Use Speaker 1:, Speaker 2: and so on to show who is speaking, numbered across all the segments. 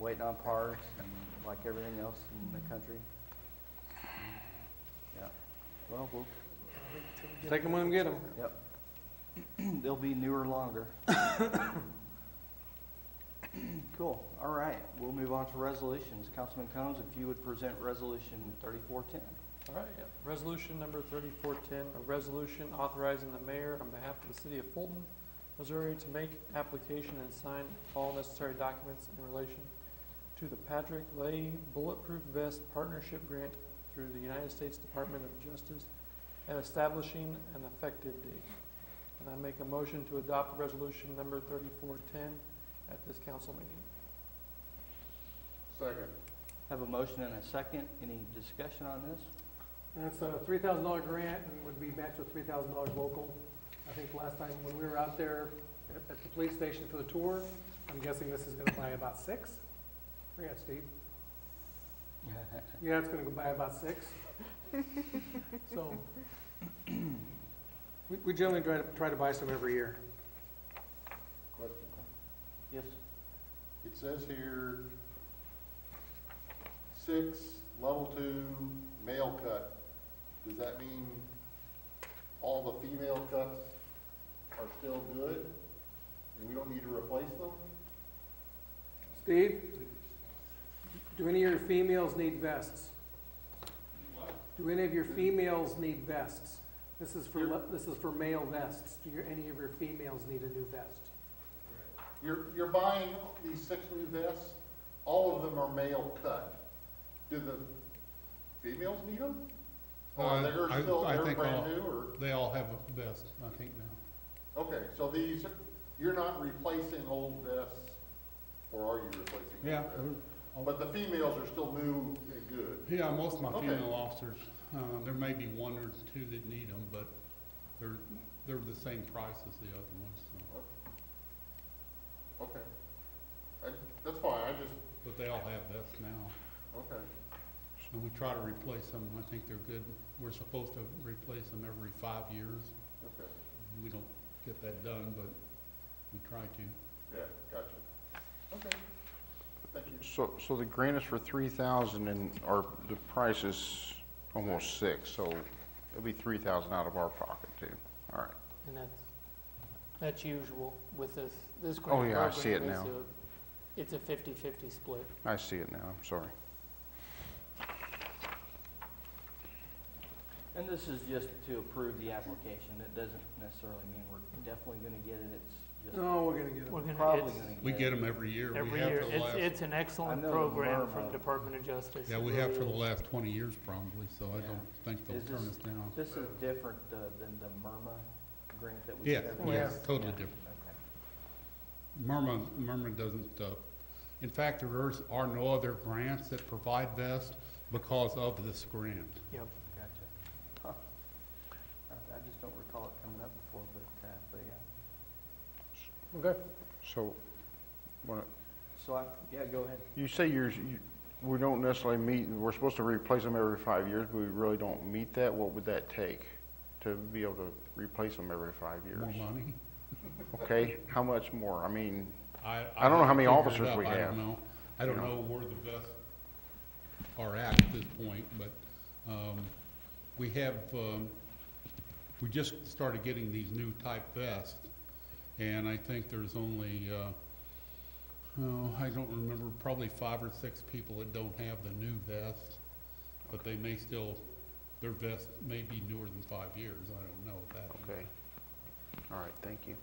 Speaker 1: waiting on parts and like everything else in the country. Yeah, well, we'll,
Speaker 2: Take them when we get them.
Speaker 1: yep. They'll be newer longer. Cool, all right, we'll move on to resolutions. Councilman Combs, if you would present resolution thirty-four ten.
Speaker 2: All right, yeah. resolution number thirty-four ten, a resolution authorizing the mayor on behalf of the city of Fulton, Missouri to make application and sign all necessary documents in relation to the Patrick Lay Bulletproof Vest Partnership Grant through the United States Department of Justice and establishing an effective date. And I make a motion to adopt resolution number thirty-four ten at this council meeting.
Speaker 3: Second.
Speaker 1: Have a motion and a second, any discussion on this?
Speaker 4: And it's a three thousand dollar grant and would be matched with three thousand dollars local. I think last time when we were out there at, at the police station for the tour, I'm guessing this is gonna buy about six. Yeah, Steve, yeah, it's gonna go buy about six. So, we, we generally try to, try to buy some every year.
Speaker 3: Question.
Speaker 1: Yes,
Speaker 3: It says here, six, level two, male cut. Does that mean all the female cuts are still good? And we don't need to replace them?
Speaker 4: Steve, do any of your females need vests? Do any of your females need vests? This is for, le- this is for male vests. Do your, any of your females need a new vest?
Speaker 3: You're, you're buying these six new vests, all of them are male cut. Do the females need them? Or
Speaker 5: Uh,
Speaker 3: they're
Speaker 5: I-
Speaker 3: still,
Speaker 5: I
Speaker 3: they're
Speaker 5: think all-
Speaker 3: brand new, or?
Speaker 5: They all have a vest, I think now.
Speaker 3: Okay, so these, you're not replacing old vests, or are you replacing? old
Speaker 5: Yeah,
Speaker 3: vests? But the females are still new and good.
Speaker 5: yeah, most of my
Speaker 3: Okay.
Speaker 5: female officers, uh, there may be one or two that need them, but they're, they're the same price as the other ones, so.
Speaker 3: Okay. I, that's fine, I just,
Speaker 5: But they all have vests now,
Speaker 3: okay,
Speaker 5: and we try to replace them, I think they're good. We're supposed to replace them every five years.
Speaker 3: okay,
Speaker 5: We don't get that done, but we try to.
Speaker 3: yeah, gotcha. Okay, thank you.
Speaker 6: So, so the grant is for three thousand and, or the price is almost six, so it'll be three thousand out of our pocket too. All right,
Speaker 7: And that's, that's usual with this, this
Speaker 6: Oh,
Speaker 7: grant
Speaker 6: yeah, I
Speaker 7: program
Speaker 6: see it
Speaker 7: is
Speaker 6: now.
Speaker 7: a- It's a fifty-fifty split.
Speaker 6: I see it now, I'm sorry.
Speaker 1: and this is just to approve the application, it doesn't necessarily mean we're definitely gonna get it, it's just
Speaker 4: No, we're gonna get them.
Speaker 7: We're gonna,
Speaker 1: probably
Speaker 7: it's,
Speaker 1: gonna get it.
Speaker 5: We get them every year. We
Speaker 7: every
Speaker 5: have
Speaker 7: year,
Speaker 5: for the
Speaker 7: it's,
Speaker 5: last-
Speaker 7: it's an excellent
Speaker 1: know the
Speaker 7: program
Speaker 1: Burma-
Speaker 7: from Department of Justice.
Speaker 5: Yeah,
Speaker 7: It
Speaker 5: we have
Speaker 7: really
Speaker 5: for the
Speaker 7: is.
Speaker 5: last twenty years probably, so I
Speaker 1: Yeah.
Speaker 5: don't think they'll
Speaker 1: Is
Speaker 5: turn
Speaker 1: this-
Speaker 5: us down.
Speaker 1: This is different uh, than the MIRMA grant that we.
Speaker 5: Yeah,
Speaker 1: got.
Speaker 4: yeah,
Speaker 5: it's totally
Speaker 1: Yeah,
Speaker 5: different.
Speaker 1: okay.
Speaker 5: Murma, Murma doesn't, uh, in fact, there is- are no other grants that provide vests because of this grant.
Speaker 7: Yep.
Speaker 1: Gotcha. Huh. I I just don't recall it coming up before, but, uh, but yeah.
Speaker 4: Okay.
Speaker 6: So, what-
Speaker 1: So I, yeah, go ahead.
Speaker 6: you say yours, you, we don't necessarily meet, we're supposed to replace them every five years, but we really don't meet that, what would that take? To be able to replace them every five
Speaker 5: More
Speaker 6: years?
Speaker 5: money?
Speaker 6: Okay, how much more? I mean,
Speaker 5: I,
Speaker 6: I don't know how many
Speaker 5: haven't
Speaker 6: officers
Speaker 5: figured it up.
Speaker 6: we
Speaker 5: I
Speaker 6: have.
Speaker 5: don't know. I don't
Speaker 6: You know.
Speaker 5: know where the vests are at at this point, but, um, we have, um, we just started getting these new type vests, and I think there's only, uh, oh, I don't remember, probably five or six people that don't have the new vest, but they may still, their vest may be newer than five years, I don't know that.
Speaker 6: okay, all right, thank you.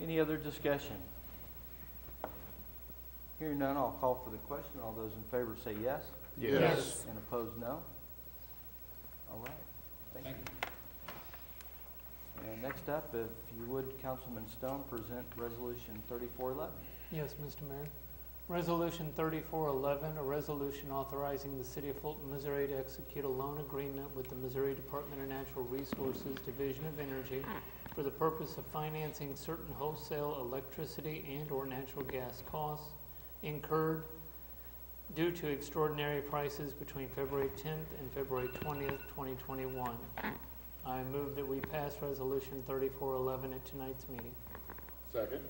Speaker 1: Any other discussion? Hearing none, I'll call for the question. All those in favor say yes,
Speaker 6: Yes.
Speaker 1: and opposed, no. All right, thank
Speaker 5: Thank
Speaker 1: you. And next up, if you would, Councilman Stone, present Resolution 3411.
Speaker 7: Yes, Mr. Mayor. Resolution thirty-four eleven, a resolution authorizing the city of Fulton, Missouri to execute a loan agreement with the Missouri Department of Natural Resources Division of Energy for the purpose of financing certain wholesale electricity and/or natural gas costs incurred due to extraordinary prices between February tenth and February twentieth, twenty twenty-one. I move that we pass resolution thirty-four eleven at tonight's meeting.
Speaker 3: Second,